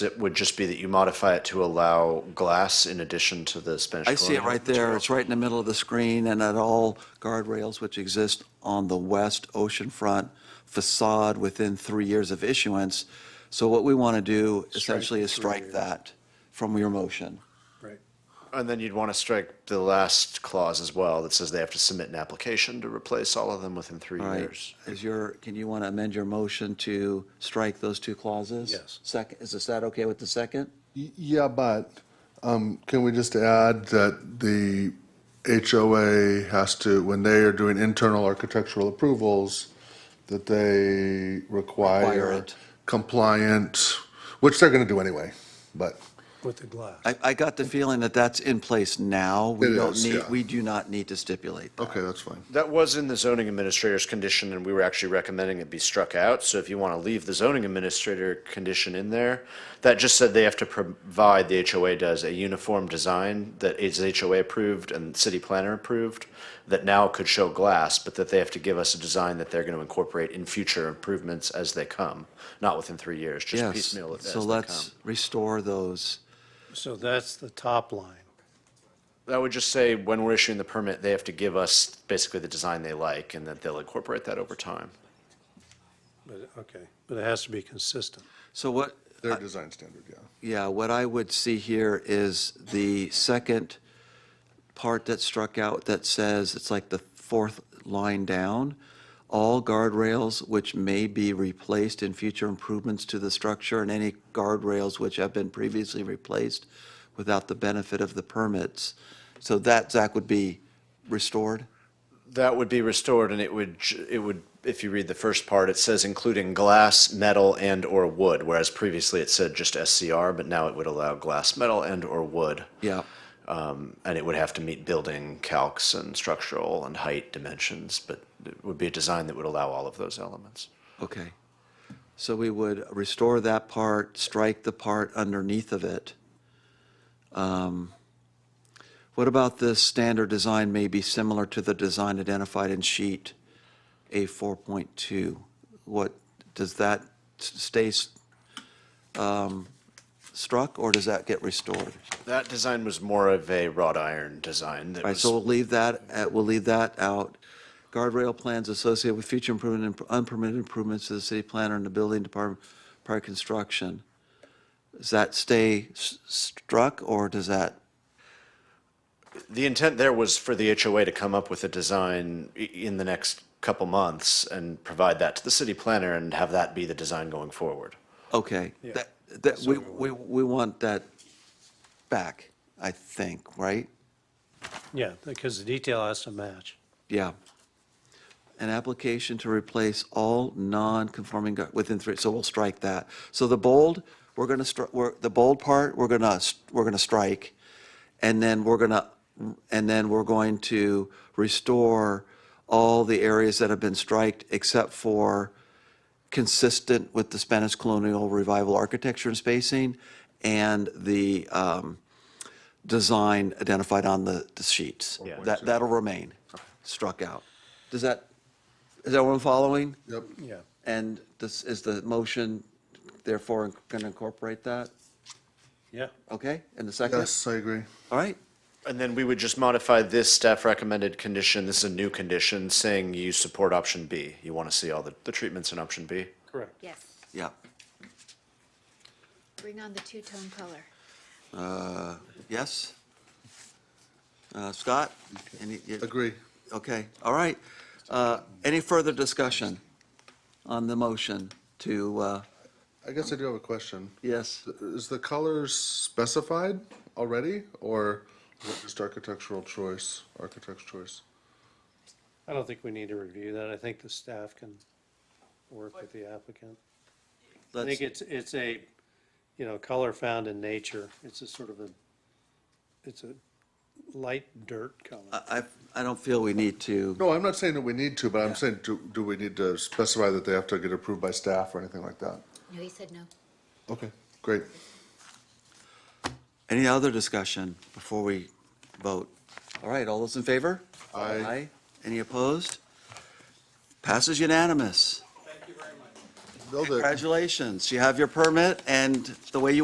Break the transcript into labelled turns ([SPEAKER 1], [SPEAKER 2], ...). [SPEAKER 1] It would just be that you modify it to allow glass in addition to the Spanish
[SPEAKER 2] I see it
[SPEAKER 1] colonial
[SPEAKER 2] right there.
[SPEAKER 1] material.
[SPEAKER 2] It's right in the middle of the screen and at all guardrails which exist on the west oceanfront facade within three years of issuance. So what we want to do essentially is
[SPEAKER 3] three
[SPEAKER 2] strike
[SPEAKER 3] years.
[SPEAKER 2] that from your motion.
[SPEAKER 3] Right.
[SPEAKER 1] And then you'd want to strike the last clause as well that says they have to submit an application to replace all of them within three
[SPEAKER 2] All right.
[SPEAKER 1] years.
[SPEAKER 2] Is your, can you want to amend your motion to strike those two clauses?
[SPEAKER 3] Yes.
[SPEAKER 2] Second, is this that okay with the second?
[SPEAKER 4] Y- Yeah, but um, can we just add that the HOA has to, when they are doing internal architectural approvals, that they
[SPEAKER 2] Require
[SPEAKER 4] require
[SPEAKER 2] it.
[SPEAKER 4] compliant, which they're going to do anyway, but,
[SPEAKER 3] With the glass.
[SPEAKER 2] I, I got the feeling that that's in place now. We
[SPEAKER 4] It
[SPEAKER 2] don't
[SPEAKER 4] is,
[SPEAKER 2] need,
[SPEAKER 4] yeah.
[SPEAKER 2] we do not need to stipulate that.
[SPEAKER 4] okay, that's fine.
[SPEAKER 1] That was in the zoning administrator's condition, and we were actually recommending it be struck out. So if you want to leave the zoning administrator condition in there, that just said they have to provide, the HOA does, a uniform design that is HOA approved and city planner approved, that now could show glass, but that they have to give us a design that they're going to incorporate in future improvements as they come, not within three years, just
[SPEAKER 2] Yes.
[SPEAKER 1] piecemeal it as
[SPEAKER 2] So
[SPEAKER 1] they come.
[SPEAKER 2] let's restore those.
[SPEAKER 3] So that's the top line.
[SPEAKER 1] That would just say when we're issuing the permit, they have to give us basically the design they like, and that they'll incorporate that over time.
[SPEAKER 3] But, okay, but it has to be consistent.
[SPEAKER 2] So what,
[SPEAKER 4] Their design standard, yeah.
[SPEAKER 2] Yeah, what I would see here is the second part that struck out that says, it's like the fourth line down. All guardrails which may be replaced in future improvements to the structure and any guardrails which have been previously replaced without the benefit of the permits. So that, Zach, would be restored?
[SPEAKER 1] That would be restored, and it would, j- it would, if you read the first part, it says including glass, metal, and/or wood, whereas previously it said just SCR, but now it would allow glass, metal, and/or wood.
[SPEAKER 2] Yeah.
[SPEAKER 1] Um, And it would have to meet building calcs and structural and height dimensions, but it would be a design that would allow all of those elements.
[SPEAKER 2] Okay. So we would restore that part, strike the part underneath of it. Um, What about this standard design may be similar to the design identified in sheet A four point two? What, does that s- stay s- um, struck or does that get restored?
[SPEAKER 1] That design was more of a wrought iron design that
[SPEAKER 2] All right,
[SPEAKER 1] was
[SPEAKER 2] so we'll leave that, uh, we'll leave that out. Guardrail plans associated with future improvement and unpermitted improvements to the city planner and the building department prior to construction. Does that stay s- struck or does that,
[SPEAKER 1] The intent there was for the HOA to come up with a design i- in the next couple months and provide that to the city planner and have that be the design going forward.
[SPEAKER 2] okay. That, that, we, we, we want that back, I think, right?
[SPEAKER 3] Yeah, because the detail has to match.
[SPEAKER 2] Yeah. An application to replace all non-conforming gar- within three, so we'll strike that. So the bold, we're gonna, stri- we're, the bold part, we're gonna, s- we're gonna strike. And then we're gonna, and then we're going to restore all the areas that have been striked except for consistent with the Spanish colonial revival architecture and spacing and the, um, design identified on the, the sheets.
[SPEAKER 1] Yeah.
[SPEAKER 2] That, that'll remain struck out. Does that, is everyone following?
[SPEAKER 4] Yep,
[SPEAKER 3] Yeah,
[SPEAKER 2] And this, is the motion therefore going to incorporate that?
[SPEAKER 3] yeah.
[SPEAKER 2] Okay, in the second?
[SPEAKER 4] yes, I agree.
[SPEAKER 2] All right,
[SPEAKER 1] And then we would just modify this staff recommended condition, this is a new condition, saying you support option B. You want to see all the, the treatments in option B.
[SPEAKER 3] Correct.
[SPEAKER 5] Yes,
[SPEAKER 2] yeah.
[SPEAKER 5] bring on the two-tone color.
[SPEAKER 2] Uh, Yes? Uh, Scott? Any- you-
[SPEAKER 4] Agree.
[SPEAKER 2] Okay, all right. Uh, Any further discussion on the motion to, uh,
[SPEAKER 4] I guess I do have a question.
[SPEAKER 2] yes?
[SPEAKER 4] Is the colors specified already, or is it just architectural choice, architect's choice?
[SPEAKER 3] I don't think we need to review that. I think the staff can work with the applicant. I
[SPEAKER 2] let's-
[SPEAKER 3] think it's, it's a, you know, color found in nature. It's a sort of a, it's a light dirt color.
[SPEAKER 2] I, I- I don't feel we need to.
[SPEAKER 4] No, I'm not saying that we need to, but I'm saying, do, do we need to specify that they have to get approved by staff or anything like that?
[SPEAKER 5] No, he said no.
[SPEAKER 4] Okay, great.
[SPEAKER 2] Any other discussion before we vote? All right, all those in favor?
[SPEAKER 4] Aye.
[SPEAKER 2] Any opposed? Passes unanimous.
[SPEAKER 4] Build it.
[SPEAKER 2] Congratulations, you have your permit and the way you